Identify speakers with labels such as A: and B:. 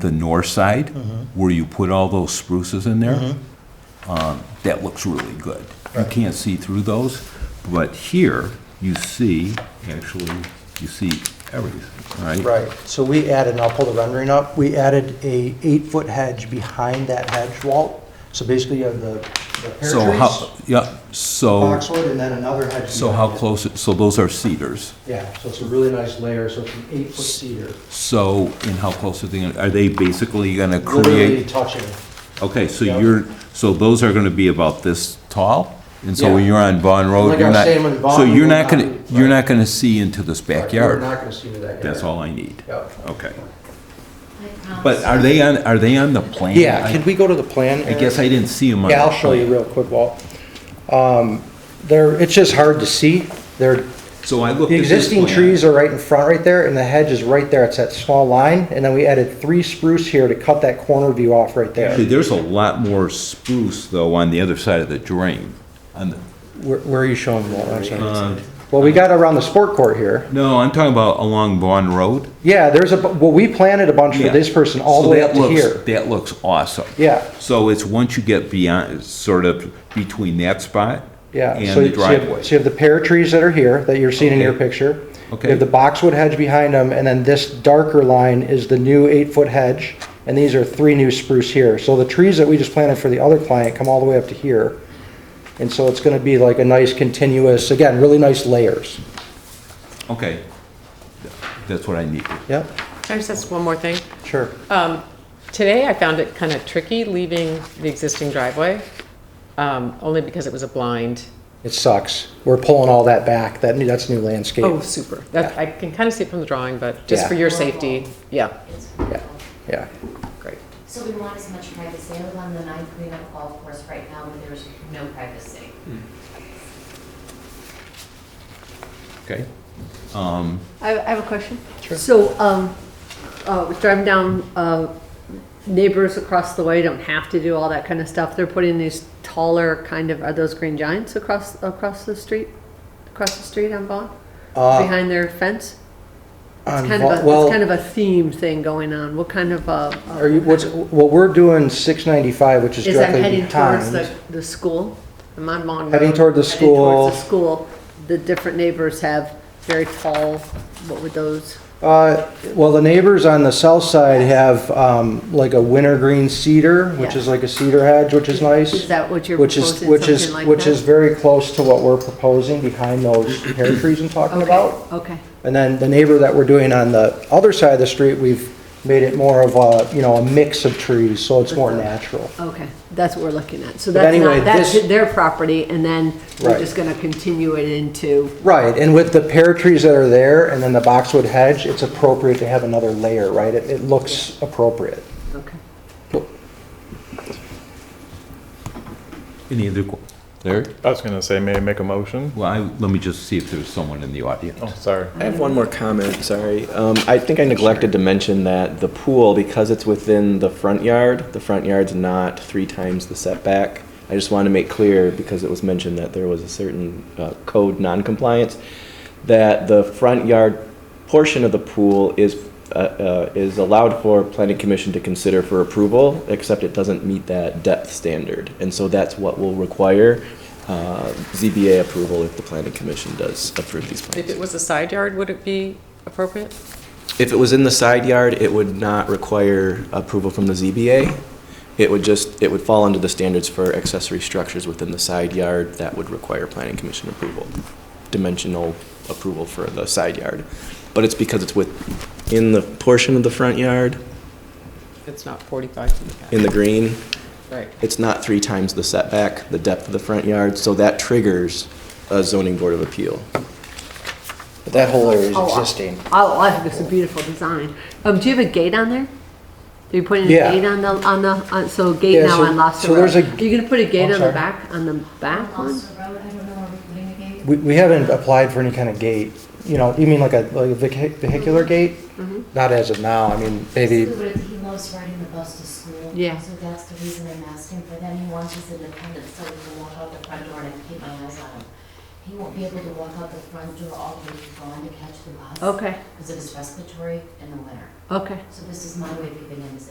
A: the north side,
B: Mm-hmm.
A: where you put all those spruces in there, um, that looks really good. You can't see through those, but here, you see, actually, you see everything, right?
B: Right, so we added, and I'll pull the rendering up, we added a eight-foot hedge behind that hedge wall. So basically you have the the pear
A: So how,
B: trees,
A: yeah, so,
B: boxwood, and then another hedge.
A: so how
B: behind it.
A: close, so those are cedars.
B: Yeah, so it's a really nice layer, so it's an eight-foot cedar,
A: So, and how close are they, gonna- are they basically gonna
B: literally
A: create?
B: touching.
A: Okay, so
B: Yeah.
A: you're, so those are gonna be about this tall? And so when
B: Yeah.
A: you're on Vaughn Road,
B: Like I
A: you're
B: was
A: not,
B: saying, when
A: so
B: Vaughn
A: you're
B: Road
A: not
B: got-
A: gonna, you're not gonna see into this
B: We're
A: backyard?
B: not gonna see into that yard.
A: That's all I need.
B: Yep.
A: Okay.
C: Um,
A: But are they on, are they on the plan?
B: Yeah, can we go to the plan?
A: I guess I didn't see them on.
B: Yeah,
A: the
B: I'll show you
A: plan.
B: real quick, Walt. Um, There, it's just hard to see. There,
A: So I looked
B: the
A: at this
B: existing
A: plan.
B: trees are right in front right there, and the hedge is right there. It's that small line, and then we added three spruce here to cut that corner view off right
A: Actually,
B: there.
A: there's a lot more spruce though on the other side of the drain. On the,
B: Where where are you showing, Walt? I'm
A: Uh,
B: sorry. Well, we got around the sport court here.
A: no, I'm talking about along Vaughn Road.
B: Yeah, there's a, bu- well, we planted a bunch for
A: Yeah.
B: this person all
A: So
B: the way
A: that
B: up to
A: looks-
B: here.
A: That looks awesome.
B: Yeah.
A: So it's once you get beyond, sort of between that spot
B: Yeah, so
A: and the
B: you so you have,
A: driveway.
B: so you have the pear trees that are here, that you're seeing in your
A: Okay.
B: picture.
A: Okay.
B: You have the boxwood hedge behind them, and then this darker line is the new eight-foot hedge, and these are three new spruce here. So the trees that we just planted for the other client come all the way up to here. And so it's gonna be like a nice continuous, again, really nice layers.
A: Okay. That's what I need.
B: Yep,
C: Can I just ask one more thing?
B: sure.
C: Today, I found it kind of tricky leaving the existing driveway, um, only because it was a blind.
B: It sucks. We're pulling all that back. That, new- that's new landscape.
C: Oh, super. That, I can kind of see it from the drawing, but just for
B: Yeah.
C: your safety, yeah,
D: It's
B: Yeah,
D: wonderful.
B: yeah.
C: great.
D: So we want as much privacy. I live on the ninth green up golf course right now where there's no privacy.
E: Hmm.
A: Okay.
E: I I have a question. So, um, uh, we're driving down, uh, neighbors across the way don't have to do all that kind of stuff. They're putting these taller kind of, are those green giants across, across the street? Across the street on Vaughn?
B: Uh,
E: Behind their fence? It's
B: Um,
E: kind of a, it's kind of a theme thing going on. What kind of, uh? uh,
B: Are you, what's, what we're doing, six ninety-five, which is
E: Is that
B: directly
E: heading towards
B: behind.
E: the, the school? I'm on Mon Road.
B: Heading toward the
E: Heading towards
B: school.
E: the school. The different neighbors have very tall, what would those?
B: Uh, Well, the neighbors on the south side have um, like a wintergreen cedar, which
E: Yeah.
B: is like a cedar hedge, which is nice.
E: Is that what you're
B: Which is-
E: proposing,
B: which is-
E: something like
B: Which is
E: that?
B: very close to what we're proposing behind those pear trees I'm talking about.
E: Okay.
B: And then the neighbor that we're doing on the other side of the street, we've made it more of a, you know, a mix of trees, so it's more natural.
E: Okay, that's what we're looking at. So
B: But
E: that's
B: anyway,
E: not, that's
B: this-
E: their property, and then
B: Right.
E: we're just gonna continue it into,
B: Right, and with the pear trees that are there and then the boxwood hedge, it's appropriate to have another layer, right? It it looks appropriate.
E: okay.
A: Any other? que- Larry?
F: I was gonna say, may I make a motion?
A: Well, I, let me just see if there's someone in the audience.
F: Oh, sorry.
G: I have one more comment, sorry. Um, I think I neglected to mention that the pool, because it's within the front yard, the front yard's not three times the setback. I just want to make clear, because it was mentioned that there was a certain uh, code noncompliance, that the front yard portion of the pool is, uh, uh, is allowed for planning commission to consider for approval, except it doesn't meet that depth standard. And so that's what will require uh, ZBA approval if the planning commission does approve these plans.
C: If it was a side yard, would it be appropriate?
G: If it was in the side yard, it would not require approval from the ZBA. It would just, it would fall under the standards for accessory structures within the side yard that would require planning commission approval, dimensional approval for the side yard. But it's because it's within the portion of the front yard,
C: It's not 45 feet back.
G: in the green,
C: Right.
G: it's not three times the setback, the depth of the front yard, so that triggers a zoning board of appeal.
B: But that whole area is
E: Oh, I-
B: existing.
E: Oh, I think it's a beautiful design. Um, do you have a gate on there? Are you putting a
B: Yeah.
E: gate on the, on the, on- so gate
B: Yeah,
E: now
B: so-
E: on Lobster
B: so
E: Road?
B: there's
E: Are
B: a-
E: you gonna put a
B: I'm
E: gate on
B: sorry.
E: the back, on the back one?
D: Lost the road, I don't know, are we putting a gate?
B: We, we haven't applied for any kind of gate, you know, you mean like a, like a vehi- vehicular gate? Not as of now, I mean, maybe,
D: Scoot it. He loves riding the bus to school.
E: Yeah.
D: So that's the reason I'm asking for them. He wants his independence, so he can walk out the front door and I can keep my eyes on him. He won't be able to walk out the front door all the way to go on to catch the bus.
E: Okay,
D: Because of his respiratory in the winter.
E: okay.
D: So this is my way of giving him his